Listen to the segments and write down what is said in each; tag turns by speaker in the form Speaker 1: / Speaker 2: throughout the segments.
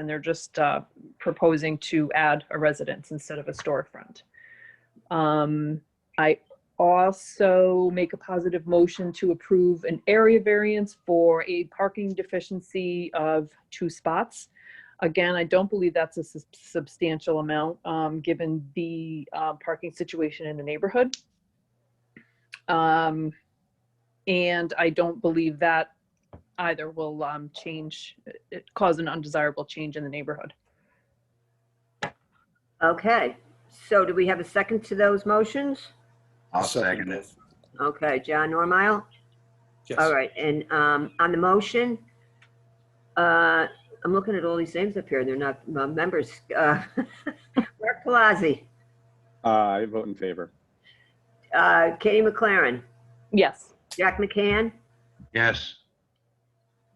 Speaker 1: and they're just uh, proposing to add a residence instead of a storefront. Um, I also make a positive motion to approve an area variance for a parking deficiency of two spots. Again, I don't believe that's a sus- substantial amount, um, given the uh, parking situation in the neighborhood. Um, And I don't believe that either will um, change, it- cause an undesirable change in the neighborhood.
Speaker 2: Okay, so do we have a second to those motions?
Speaker 3: I'll second it.
Speaker 2: Okay, John Normile? All
Speaker 4: Yes.
Speaker 2: right, and um, on the motion, uh, I'm looking at all these names up here, and they're not uh, members. Uh, Mark Pelosi,
Speaker 5: Uh, I vote in favor.
Speaker 2: uh, Katie McLaren,
Speaker 1: Yes,
Speaker 2: Jack McCann,
Speaker 3: Yes,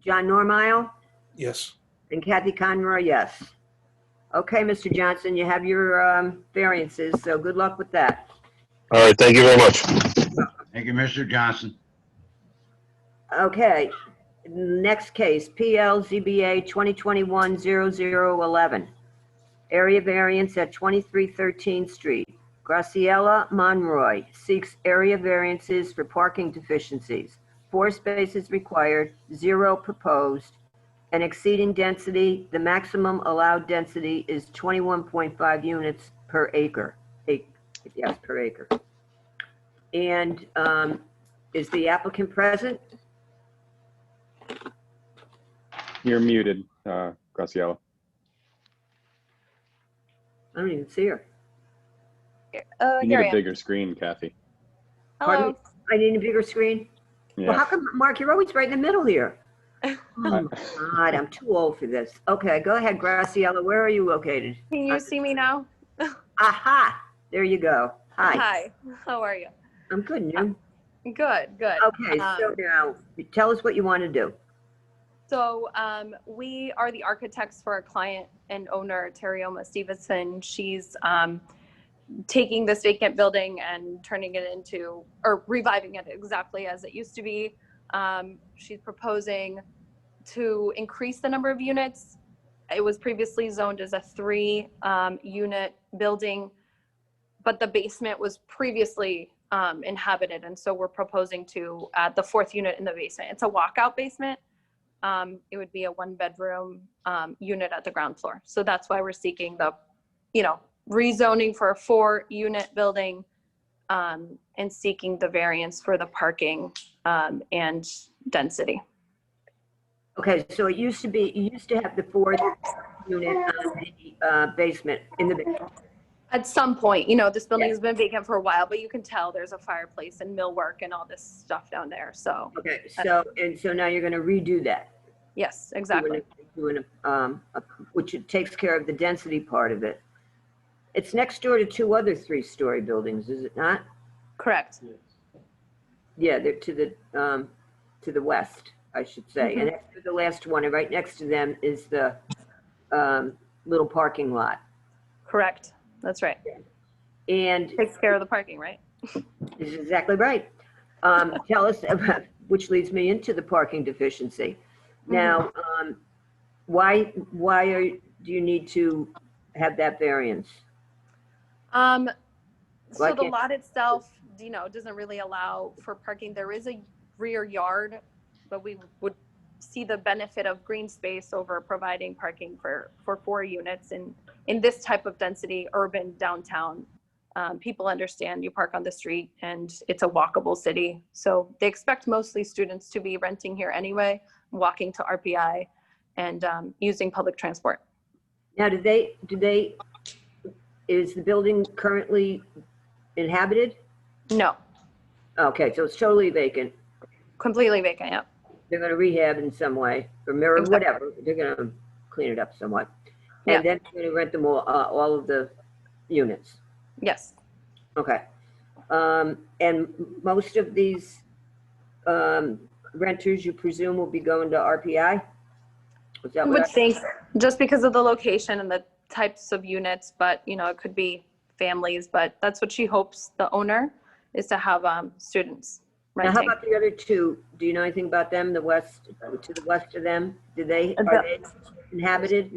Speaker 2: John Normile,
Speaker 4: Yes.
Speaker 2: and Kathy Conroy, yes. Okay, Mr. Johnson, you have your um, variances, so good luck with that.
Speaker 6: All right, thank you very much.
Speaker 3: thank you, Mr. Johnson.
Speaker 2: Okay, next case, PLZBA 2021-0011. Area variance at 2313 Street. Graciela Monroy seeks area variances for parking deficiencies. Four spaces required, zero proposed, and exceeding density, the maximum allowed density is 21.5 units per acre. Ac- Yes, per acre. And um, is the applicant present?
Speaker 5: You're muted, uh, Graciela.
Speaker 2: I don't even see her.
Speaker 7: Oh,
Speaker 5: You need
Speaker 7: here I
Speaker 5: a
Speaker 7: am.
Speaker 5: bigger screen, Kathy.
Speaker 2: Pardon
Speaker 7: Hello.
Speaker 2: I need a bigger screen. Well, how
Speaker 5: Yeah.
Speaker 2: come, Mark, you're always right in the middle here? Oh my God, I'm too old for this. Okay, go ahead, Graciela, where are you located?
Speaker 7: Can you see me now?
Speaker 2: Aha, there you go. Hi,
Speaker 7: How are you?
Speaker 2: I'm good, and you?
Speaker 7: Good, good.
Speaker 2: Okay, so
Speaker 7: Um,
Speaker 2: now, tell us what you want to do.
Speaker 7: So um, we are the architects for our client and owner, Terioma Stevenson. She's um, taking this vacant building and turning it into, or reviving it exactly as it used to be. Um, She's proposing to increase the number of units. It was previously zoned as a three-unit building, but the basement was previously um, inhabited, and so we're proposing to add the fourth unit in the basement. It's a walkout basement. Um, It would be a one-bedroom um, unit at the ground floor. So that's why we're seeking the, you know, rezoning for a four-unit building um, and seeking the variance for the parking um, and density.
Speaker 2: Okay, so it used to be, you used to have the fourth unit on the uh, basement, in the, basement.
Speaker 7: At some point, you know, this building has been vacant for a while, but you can tell there's a fireplace and millwork and all this stuff down there. So,
Speaker 2: okay, so, and so now you're going to redo that.
Speaker 7: yes, exactly.
Speaker 2: doing a- um, a- Which it takes care of the density part of it. It's next door to two other three-story buildings, is it not?
Speaker 7: Correct.
Speaker 2: Yeah, they're to the, um, to the west, I should say. And after the last one, and right next to them is the, um, little parking lot.
Speaker 7: Correct. That's right.
Speaker 2: And
Speaker 7: Takes care of the parking, right?
Speaker 2: this is exactly right. Um, tell us, about which leads me into the parking deficiency. Now, um, why, why are, do you need to have that variance?
Speaker 7: Um,
Speaker 2: Why
Speaker 7: so the
Speaker 2: can't-
Speaker 7: lot itself, you know, doesn't really allow for parking. There is a rear yard, but we would see the benefit of green space over providing parking for, for four units in, in this type of density, urban downtown. Um, people understand you park on the street and it's a walkable city. So they expect mostly students to be renting here anyway, walking to RPI and, um, using public transport.
Speaker 2: Now, do they, do they, is the building currently inhabited?
Speaker 7: No,
Speaker 2: Okay, so it's totally vacant.
Speaker 7: completely vacant, yep.
Speaker 2: They're gonna rehab in some way, or mirror,
Speaker 7: Exactly.
Speaker 2: whatever, they're gonna clean it up somewhat.
Speaker 7: Yeah.
Speaker 2: And then they're gonna rent them all, uh, all of the units,
Speaker 7: Yes.
Speaker 2: okay. Um, and most of these, um, renters, you presume, will be going to RPI? Is that what
Speaker 7: I would
Speaker 2: I-
Speaker 7: think, just because of the location and the types of units, but, you know, it could be families, but that's what she hopes, the owner, is to have um, students
Speaker 2: Now, how
Speaker 7: renting.
Speaker 2: about the other two? Do you know anything about them, the west, to the west of them? Do they,
Speaker 7: Uh,
Speaker 2: are
Speaker 7: the-
Speaker 2: they inhabited?